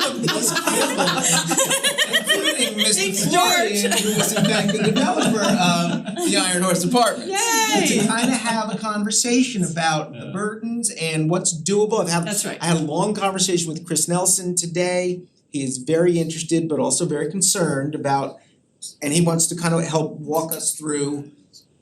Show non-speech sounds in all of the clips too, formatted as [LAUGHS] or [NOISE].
companies, including Mr. Florian, who was in fact the developer of the Iron Horse Apartments. To Yay! kind of have a conversation about the burdens and what's doable. I've had That's right. I had a long conversation with Chris Nelson today. He is very interested but also very concerned about and he wants to kind of help walk us through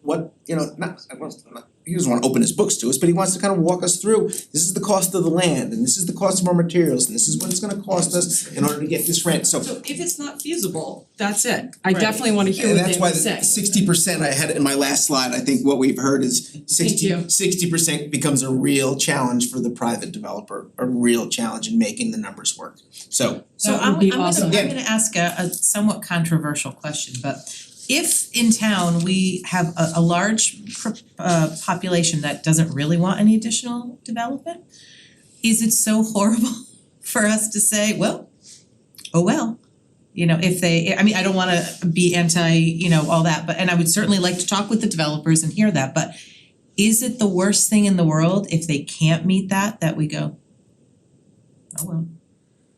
what, you know, not, I was, not, he doesn't wanna open his books to us, but he wants to kind of walk us through, this is the cost of the land, and this is the cost of our materials, and this is what it's gonna cost us in order to get this rent, so. So if it's not feasible, that's it. I Right. definitely wanna hear what And they have that's why to the say. sixty percent I had it in my last slide, I think what we've heard is you. sixty, sixty percent becomes a real challenge for the private developer, a real challenge in making the numbers work, so. So That I'm would be I'm gonna awesome. I'm Yeah. gonna ask a a somewhat controversial question, but if in town we have a a large pr- uh population that doesn't really want any additional development, is it so horrible [LAUGHS] for us to say, well, oh well, you know, if they, I mean, I don't wanna be anti, you know, all that, but and I would certainly like to talk with the developers and hear that, but is it the worst thing in the world if they can't meet that, that we go, oh well,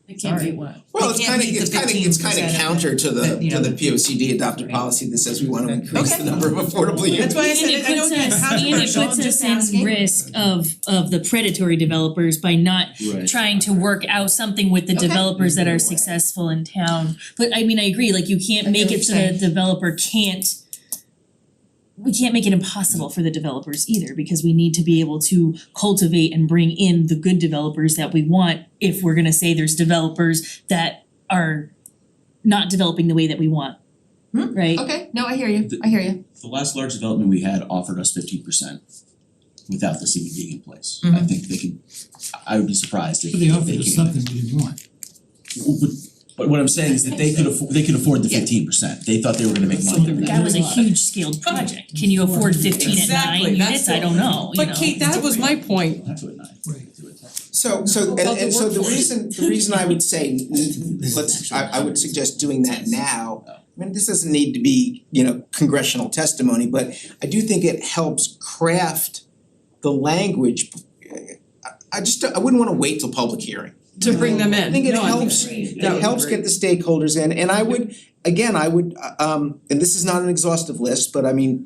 I can't beat one. Well, They it's can't kinda, beat it's the kinda, it's kinda 15% counter to the, that, you to know, the P O C D adopted right. policy that says we wanna increase the Okay. number of affordable units. That's why I said it, I know it's controversial, I'm And it just puts us in asking. risk of of the predatory developers by not Right. trying to work out something with the Okay. developers that Either way. are successful in town. But I mean, I agree, like you I can't get make what it so you're the developer can't we can't make it impossible for the developers either because we need to be able to cultivate and bring in the good developers that we want if we're gonna say there's developers that are not developing the way that we want. Hmm, Right? Okay, no, I hear you, I hear you. The last large development we had offered us fifteen percent without this even being in place. I Mm-hmm. Mhm. think they could, I- I would be surprised if But they if offered they us came. something we didn't want. Well, But but what I'm saying is that they could afford, they could afford the fifteen percent. They thought they were gonna make money Something on we that. That was a huge scaled project. Can you afford fifteen at Exactly, nine that's units? I the- don't know, you know? But Kate, that was my point. We'll have to at nine. Right. Do it then. So so and About the and so the workforce. reason, the reason I would [LAUGHS] say, n- n- This is let's, I actually- I would suggest doing that now. Oh. I mean, this doesn't need to be, you know, congressional testimony, but I do think it helps craft the language. I I just, I wouldn't wanna wait till public hearing. To bring them in. I think it No, I helps, that it would helps be get the stakeholders in, and I would, again, I would, uh, um, and this is not an exhaustive list, but I mean,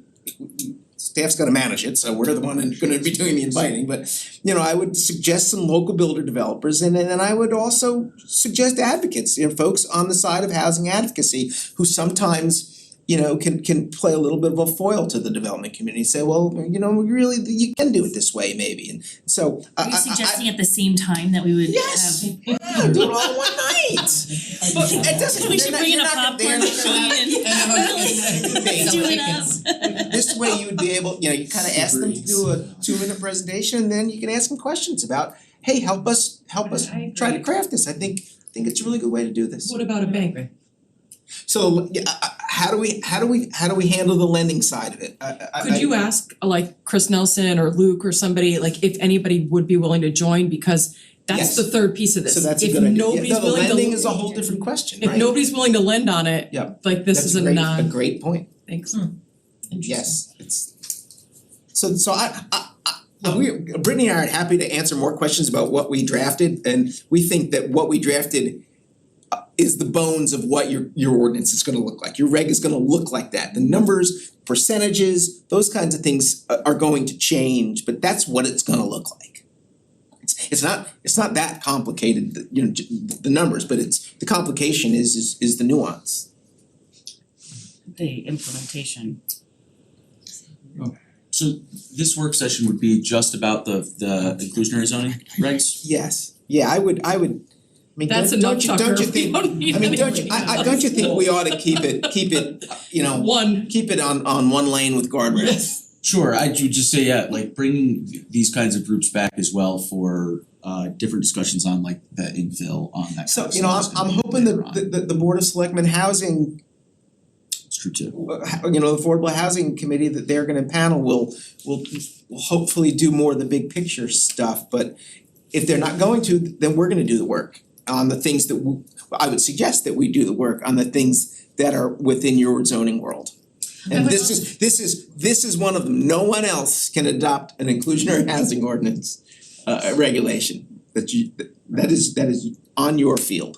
staff's gonna manage it, so we're the one that's gonna be doing the inviting, but, you know, I would suggest some local builder developers, and and I would also suggest advocates, you know, folks on the side of housing advocacy, who sometimes, you know, can can play a little bit of a foil to the development community, say, well, you know, really, you can do it this way, maybe, and so, I I Are you I- I- suggesting at the same time that we would have? Yes. yeah, [LAUGHS] do it all in one night. But it doesn't, We they're should not- bring in you're a not gonna- popcorn machine [LAUGHS] they're not gonna- and do it up. This way you would be able, you know, you kind of ask them to do a two minute presentation and then you can ask them questions about, hey, help us, help us I try to agree. craft this. I think, I think it's a really good way to do this. What about a bank? So, yeah, I- I- how do we, how do we, how do we handle the lending side of it? I- I- I- Could you ask uh, like Chris Nelson or Luke or somebody, like if anybody would be willing to join, because that's Yes. the third piece of this. So that's a good idea. If Yeah, nobody's no, the willing to, lending is a whole different question, if right? nobody's willing to lend on it, Yeah. like this is That's a a great, a non, great point. thanks. Yes, it's. So so I I I we Brittany and I are happy to answer more questions about what we drafted and we think that what we drafted uh, is the bones of what your your ordinance is gonna look like. Your reg is gonna look like that. The numbers, percentages, those kinds of things a- are going to change, but that's what it's gonna look like. It's it's not it's not that complicated, the- you know, j- the numbers, but it's the complication is is is the nuance. the implementation. So this work session would be just about the the inclusionary zoning regs? Yes, yeah, I would I would, I mean, That's a don't no don't you chucker, don't you think [LAUGHS] we don't need I mean, anybody don't you, I I don't you think we ought to keep it, keep it, you know, [LAUGHS] One, keep it on on one lane with guardrails? Sure, I would just say, yeah, like bringing th- these kinds of groups back as well for uh different discussions on like the infill on that kind So, of you know, I'm stuff is I'm gonna be hoping later that on. the the the Board of Selectmen Housing, It's true too. uh, ho- you know, Affordable Housing Committee that they're gonna panel will will will hopefully do more of the big picture stuff, but if they're not going to, then we're gonna do the work on the things that w I I would suggest that we do the work on the things that are within your zoning world. And would this is, this is, this is one of them, no one else can adopt an inclusionary [LAUGHS] housing ordinance uh regulation that you, that is, that is on your field.